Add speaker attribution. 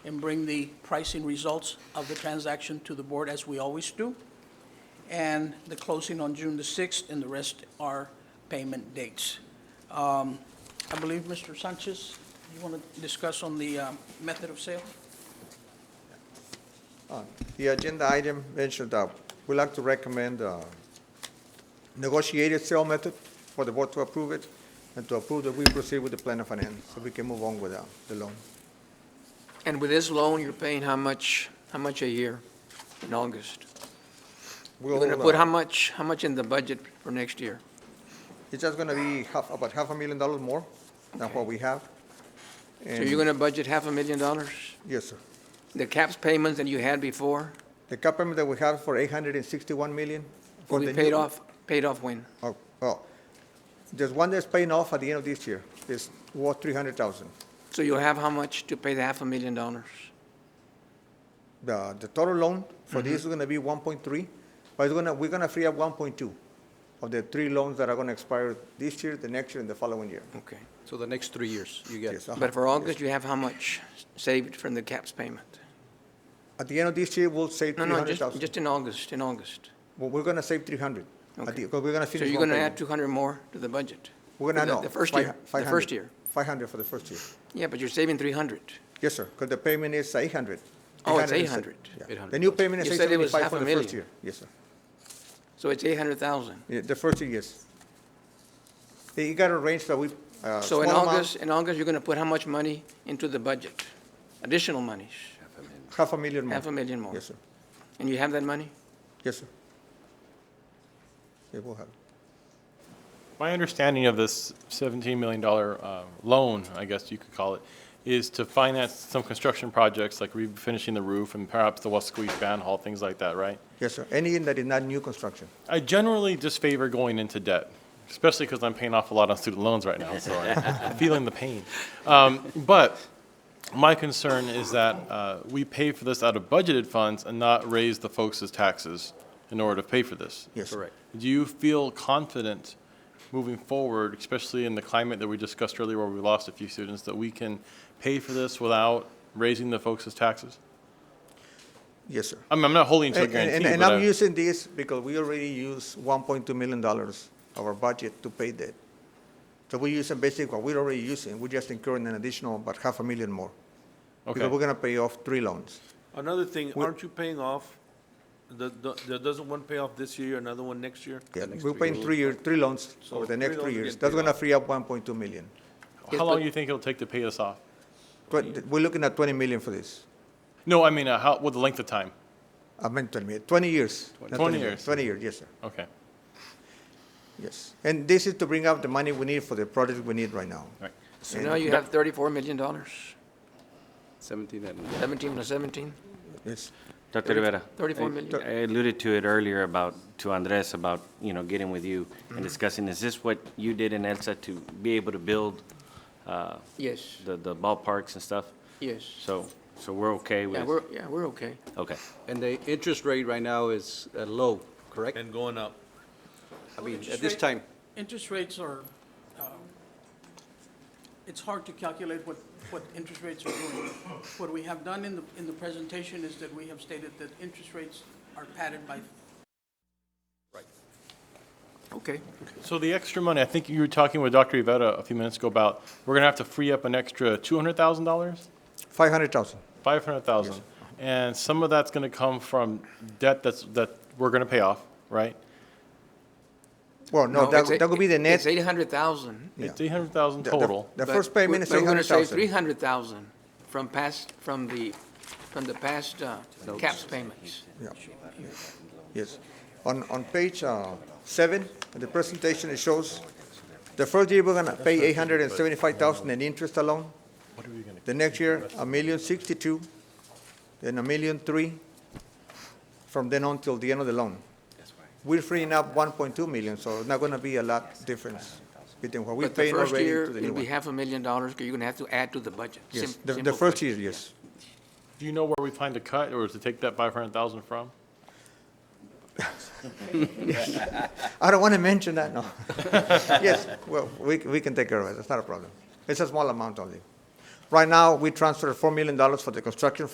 Speaker 1: and bring the pricing results of the transaction to the board as we always do. And the closing on June the 6th, and the rest are payment dates. Um, I believe, Mr. Sanchez, you want to discuss on the uh, method of sale?
Speaker 2: The agenda item mentioned, uh, we'd like to recommend uh, negotiated sale method for the board to approve it, and to approve that we proceed with the plan of finance, so we can move on with uh, the loan.
Speaker 3: And with this loan, you're paying how much, how much a year in August? You're
Speaker 2: We'll,
Speaker 3: gonna put how
Speaker 2: uh,
Speaker 3: much, how much in the budget for next year?
Speaker 2: It's just gonna be half, about half a million dollars more than what we have.
Speaker 3: So you're gonna budget half a million dollars?
Speaker 2: Yes, sir.
Speaker 3: The caps payments that you had before
Speaker 2: The cap payment that we have for 861 million. for
Speaker 3: will be
Speaker 2: the
Speaker 3: paid
Speaker 2: new-
Speaker 3: off, paid off when?
Speaker 2: Oh, well, there's one that's paying off at the end of this year. It's worth 300,000.
Speaker 3: So you'll have how much to pay the half a million dollars?
Speaker 2: The, the total loan for
Speaker 3: Mm-hmm.
Speaker 2: this is gonna be one point three, but it's gonna, we're gonna free up one point two of the three loans that are gonna expire this year, the next year, and the following year.
Speaker 3: Okay.
Speaker 4: So the next three years, you get,
Speaker 2: Yes, uh-huh.
Speaker 3: But for August, you have how much saved from the caps payment?
Speaker 2: At the end of this year, we'll save
Speaker 3: No,
Speaker 2: three
Speaker 3: no,
Speaker 2: hundred
Speaker 3: just,
Speaker 2: thousand.
Speaker 3: just in August, in August.
Speaker 2: Well, we're gonna save three hundred,
Speaker 3: Okay.
Speaker 2: because we're gonna
Speaker 3: So
Speaker 2: finish
Speaker 3: you're
Speaker 2: one
Speaker 3: gonna add
Speaker 2: payment.
Speaker 3: two hundred more to the budget?
Speaker 2: We're gonna,
Speaker 3: the-
Speaker 2: no.
Speaker 3: The first
Speaker 2: fi-
Speaker 3: year, the
Speaker 2: 500.
Speaker 3: first year.
Speaker 2: Five hundred for the first year.
Speaker 3: Yeah, but you're saving three hundred.
Speaker 2: Yes, sir, because the payment is eight hundred.
Speaker 3: Oh, it's 800.
Speaker 2: The new payment is
Speaker 3: You
Speaker 2: eight
Speaker 3: said it was
Speaker 2: seventy-five
Speaker 3: half
Speaker 2: for
Speaker 3: a
Speaker 2: the first
Speaker 3: million.
Speaker 2: year. Yes, sir.
Speaker 3: So it's eight hundred thousand.
Speaker 2: Yeah, the first year, yes. You got a range that we, uh, small
Speaker 3: So in
Speaker 2: amount.
Speaker 3: August, in August, you're going to put how much money into the budget? Additional monies,
Speaker 2: Half a million more.
Speaker 3: half a million more.
Speaker 2: Yes, sir.
Speaker 3: And you have that money?
Speaker 2: Yes, sir. It will happen.
Speaker 5: My understanding of this $17 million uh, loan, I guess you could call it, is to finance some construction projects like refinishing the roof and perhaps the Wasqueesh Band Hall, things like that, right?
Speaker 2: Yes, sir. Anything that is not new construction.
Speaker 5: I generally disfavor going into debt, especially because I'm paying off a lot on student loans right now, so I'm feeling the pain. Um, But my concern is that uh, we pay for this out of budgeted funds and not raise the folks' taxes in order to pay for this.
Speaker 2: Yes. sir.
Speaker 4: correct.
Speaker 5: Do you feel confident moving forward, especially in the climate that we discussed earlier where we lost a few students, that we can pay for this without raising the folks' taxes?
Speaker 2: Yes, sir.
Speaker 5: I mean, I'm not holding to a
Speaker 2: And, and-
Speaker 5: guarantee,
Speaker 2: and
Speaker 5: but
Speaker 2: I'm
Speaker 5: I-
Speaker 6: uh,
Speaker 2: using this because we already use one point two million dollars of our budget to pay that. So we're using basically what we're already using. We're just incurring an additional about half a million more.
Speaker 5: Okay.
Speaker 2: Because we're gonna pay off three loans.
Speaker 6: Another thing,
Speaker 2: We-
Speaker 6: aren't you paying off, the, the, there doesn't one pay off this year, another one next year?
Speaker 2: Yeah, we're paying three year, three loans
Speaker 6: So
Speaker 2: over the
Speaker 6: three
Speaker 2: next
Speaker 6: loans
Speaker 2: three years.
Speaker 6: get
Speaker 2: That's
Speaker 6: paid
Speaker 2: gonna
Speaker 6: off.
Speaker 2: free up one point two million.
Speaker 3: Yes,
Speaker 5: how long
Speaker 3: but-
Speaker 5: do you think it'll take to pay this off?
Speaker 2: Twen- we're looking at twenty million for this.
Speaker 5: No, I mean, uh, how, what the length of time?
Speaker 2: I meant Uh, twenty million, twenty years. not
Speaker 5: 20
Speaker 2: million,
Speaker 5: years.
Speaker 2: Twenty years, yes, sir.
Speaker 5: Okay.
Speaker 2: Yes. And this is to bring up the money we need for the projects we need right now.
Speaker 5: All right.
Speaker 3: So now you have thirty-four million dollars,
Speaker 4: Seventeen and
Speaker 3: seventeen to seventeen?
Speaker 2: Yes.
Speaker 7: Dr. Rivera.
Speaker 3: Thirty-four
Speaker 7: I-
Speaker 3: million.
Speaker 7: I alluded to it earlier about, to Andres, about, you know, getting with you and discussing, is this what you did in ELSA to be able to build uh,
Speaker 3: Yes,
Speaker 7: the the ballparks and stuff?
Speaker 3: yes.
Speaker 7: So, so we're okay with?
Speaker 3: Yeah, we're, yeah, we're okay.
Speaker 7: Okay.
Speaker 4: And the interest rate right now is uh, low, correct?
Speaker 6: And going up.
Speaker 4: I mean,
Speaker 1: Interest
Speaker 4: at this
Speaker 1: rate-
Speaker 4: time,
Speaker 1: Interest rates are, um, it's hard to calculate what, what interest rates are doing. What we have done in the, in the presentation is that we have stated that interest rates are padded by
Speaker 3: Okay.
Speaker 5: So the extra money, I think you were talking with Dr. Iveta a few minutes ago about, we're gonna have to free up an extra two hundred thousand dollars,
Speaker 2: Five hundred thousand.
Speaker 5: five hundred thousand, and some of that's gonna come from debt that's that we're gonna pay off, right?
Speaker 2: Well, no, that,
Speaker 3: it's eight-
Speaker 2: that would be the net.
Speaker 3: It's eight hundred thousand.
Speaker 5: It's eight hundred thousand
Speaker 2: the- the-
Speaker 5: total.
Speaker 2: The first payment is eight hundred
Speaker 3: But we're going to save three
Speaker 2: thousand.
Speaker 3: hundred thousand from past, from the, from the past uh, caps payments.
Speaker 2: Yes. On, on page, uh, seven, in the presentation, it shows the first year we're gonna pay eight hundred and seventy-five thousand in interest alone. The next year, a million sixty-two, then a million three, from then on till the end of the loan. We're freeing up one point two million, so it's not gonna be a lot difference between what we're
Speaker 3: But the
Speaker 2: paying
Speaker 3: first
Speaker 2: already
Speaker 3: year,
Speaker 2: to the new
Speaker 3: it'll be
Speaker 2: one.
Speaker 3: half a million dollars, 'cause you're going to have to add to the budget.
Speaker 2: Yes,
Speaker 3: Sim-
Speaker 2: the, the
Speaker 3: simple
Speaker 2: first
Speaker 3: budget.
Speaker 2: year, yes.
Speaker 5: Do you know where we plan to cut, or is it take that five hundred thousand from?
Speaker 2: I don't want to mention that, no. Yes, well, we, we can take care of it, it's not a problem. It's a small amount only. Right now, we transferred $4 million for the construction